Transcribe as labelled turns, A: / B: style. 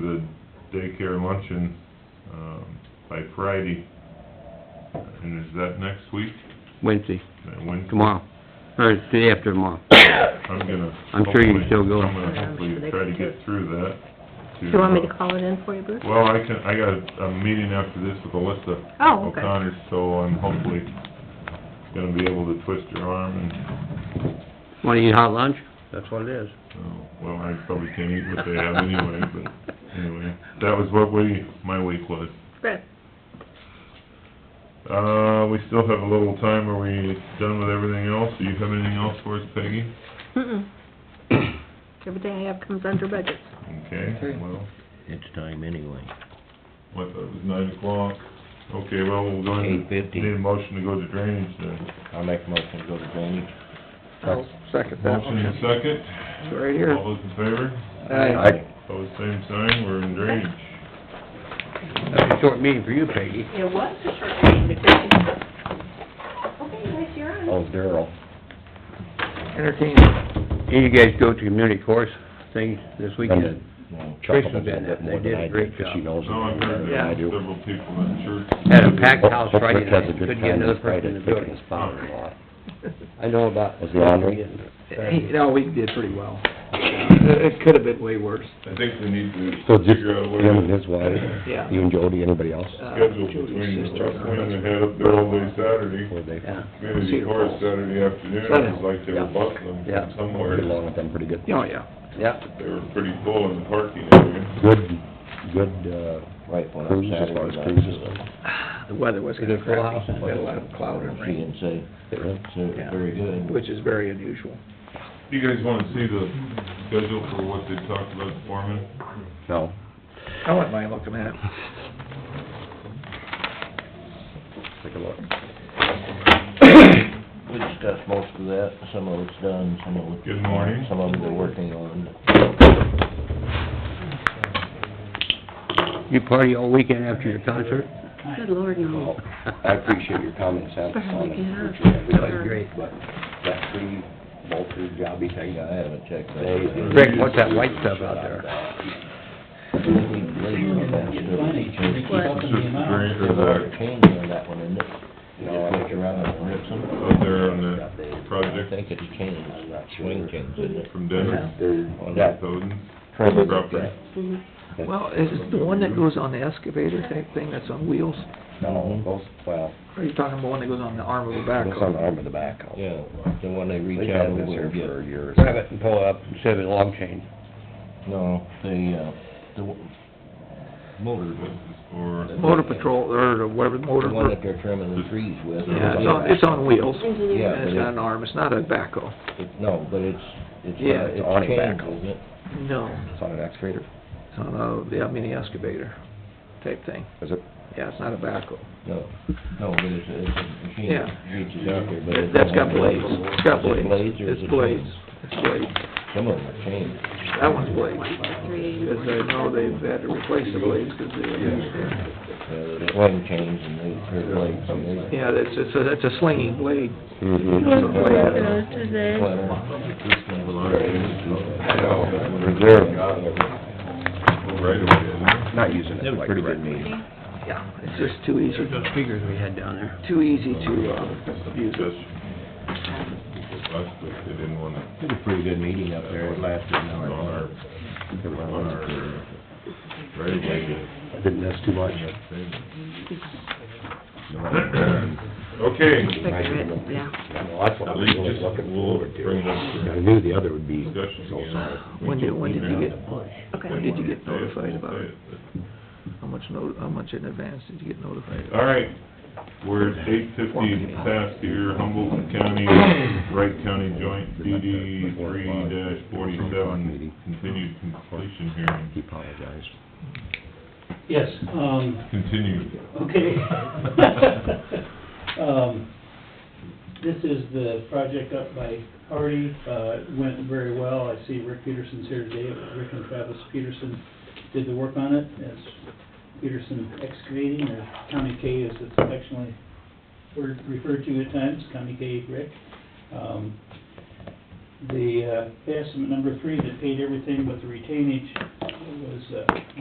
A: the daycare luncheon, um, by Friday. And is that next week? Uh,
B: Wednesday,
A: That Wednesday?
B: tomorrow, or the day after tomorrow.
A: I'm gonna.
B: I'm sure you can
A: hopefully-
B: still go.
A: I'm gonna hopefully try to get through that. Mm-hmm. uh,
C: Do you want me to call it in for you, Bruce?
A: Well, I can, I got a meeting after this with Alyssa
C: Oh, okay.
A: O'Connor, so I'm hopefully gonna be able to twist her arm and,
B: Wanna eat hot lunch? That's what it is.
A: oh, well, I probably can't eat what they have anyway, but anyway. That was what we, my week was.
C: Good.
A: Uh, we still have a little time. Are we done with everything else? Do you have anything else for us, Peggy?
C: Mm-mm. Everything I have comes under budget.
A: Okay, well,
D: It's time anyway.
A: I thought it was nine o'clock. Okay, well, we'll go into,
D: 8:50.
A: need a motion to go to drainage then.
D: I'll make a motion to go to drainage.
E: I'll second that
A: Motion and
E: one.
A: second.
E: It's right
A: All
E: here.
A: those in favor?
E: Aye.
A: Opposed, same sign. We're in drainage.
B: That was a short meeting for you, Peggy.
F: It was a short meeting, but thank you. Okay, guys, you're on.
D: Oh, Daryl.
E: Entertain,
B: And you guys go to community course thing this weekend?
D: Chuckle a
B: Tristan's
D: little
B: been
D: bit
B: at it.
D: more
B: They
D: than
B: did a
D: I do,
B: great
D: because she
B: job.
D: knows it
A: No, I've
D: better
A: heard
D: than I
A: that from
D: do.
A: several people in church.
B: Had a packed house
D: Um, Hope-
B: Friday night,
D: Hope Rick has a
B: couldn't
D: good
B: get
D: time
B: another
D: this Friday,
B: person in the
D: picking
B: building.
D: his father-in-law.
B: I know about...
D: Was the laundry?
E: hey, no, we did pretty well. It it could've been way worse.
A: I think we need
D: So
A: to
D: just
A: figure out a way
D: him and
A: to
D: his wife,
E: Yeah.
D: you and Jody, anybody else?
E: Uh,
A: schedule
E: Julie's
A: between the
E: sister.
A: wing and head up there all day Saturday.
D: Were they
E: Yeah.
A: Community
E: Cedar
A: course
E: Falls.
A: Saturday afternoon. It was like they were bustling
B: Yeah.
A: from somewhere.
D: pretty long with them, pretty good?
E: Oh, yeah.
B: Yeah,
A: They were pretty full in the parking area.
D: Good, good, uh, cruise as far as cruises.
E: The weather was
B: Is it
E: kinda
B: full house?
E: crappy. We had a lot of cloud and rain,
D: say,
E: Yeah. very
D: good.
E: which is very unusual.
A: You guys wanna see the schedule for what they talked about forming?
D: No.
E: I wouldn't mind looking at it.
D: Take a look. We discussed most of that, some of it's done, some of it's...
A: Good morning.
D: Some of them they're working on.
B: you party all weekend after your concert?
C: Good lord, no.
D: Well, I appreciate your comments, Al, on it, which
B: That was great.
D: but that free, multi jobby thing, I haven't checked that.
B: Rick, what's that white stuff out there?
C: What?
A: It's just the drain or the,
D: Cane on that one, isn't it? No, I think around and rip some.
A: out there on the
D: I
A: project
D: think it's canes, swing canes, isn't it?
A: from Dennis,
D: On
A: Dennis
D: that
A: Odens.
D: property.
C: Mhm.
E: Well, is it the one that goes on the excavator type thing that's on wheels?
D: No, those, well,
E: Or are you talking about one that goes on the arm of the
D: that's on the
E: backhoe?
D: arm of the backhoe. Yeah, the one they reach
B: out
D: They've had
B: over
D: this here
B: and get.
D: for years.
B: Grab it and pull it up instead of a log chain.
D: No, the, uh, the w- motor,
A: This is for, uh,
E: Motor patrol, or whatever,
D: the
E: motor,
D: one that they're trimming the trees with.
E: yeah, it's on, it's on wheels.
C: Engineer.
D: Yeah,
E: And it's
D: but
E: got an arm, it's not a backhoe.
D: it- No, but it's, it's,
E: Yeah,
D: uh,
E: it's
D: it's
E: on a
D: chains,
E: backhoe.
D: isn't it?
E: No.
D: It's on an excavator,
E: It's on a, yeah, mini excavator type thing.
D: is it?
E: Yeah, it's not a backhoe.
D: No, no, but it's, it's a machine
E: Yeah.
D: that reaches out there, but it's...
E: That's
D: on
E: got
D: a-
E: blades. It's got
D: Is it
E: blades.
D: blades or is
E: It's
D: it
E: blades.
D: chains?
E: It's blades.
D: Some of them are chains.
E: That one's blades.
C: Three.
E: Because I know they've had to replace the blades because they,
D: Uh, they're swing chains and they, they're blades and they...
E: yeah, that's, it's a, that's a slinging blade.
A: right away.
D: Not using it like... Pretty good meeting.
E: Yeah, it's just too easy,
B: Figures we had down there.
E: too easy to, uh, use it.
A: Last week, they didn't wanna,
D: It was a pretty good meeting up there, it lasted an
A: on our,
D: hour.
A: on our, uh, right away.
D: I didn't miss too much.
A: Okay,
C: Figure it, yeah.
D: Well, that's what
A: at
D: I'm
A: least
D: really
A: just,
D: looking
A: we'll
D: forward to.
A: bring it up
D: I knew the other would be...
A: for discussion again.
E: When did, when did you get,
C: Okay.
E: when did you get
A: They won't say
E: notified
A: it,
E: about
A: we'll
E: it?
A: say it, but-
E: How much no, how much in advance did you get notified?
A: All right, we're at eight fifty past here, Humboldt County, Wright County Joint DD three forty-seven, continued completion hearing,
D: He apologized.
G: Yes, um,
A: continued.
G: okay. Um, this is the project up by Hardy, uh, it went very well. I see Rick Peterson's here today. Rick and Travis Peterson did the work on it. It's Peterson excavating, or County K as it's affectionately word- referred to at times, County K Rick. Um, the, uh, estimate number three that paid everything but the retainage was, uh,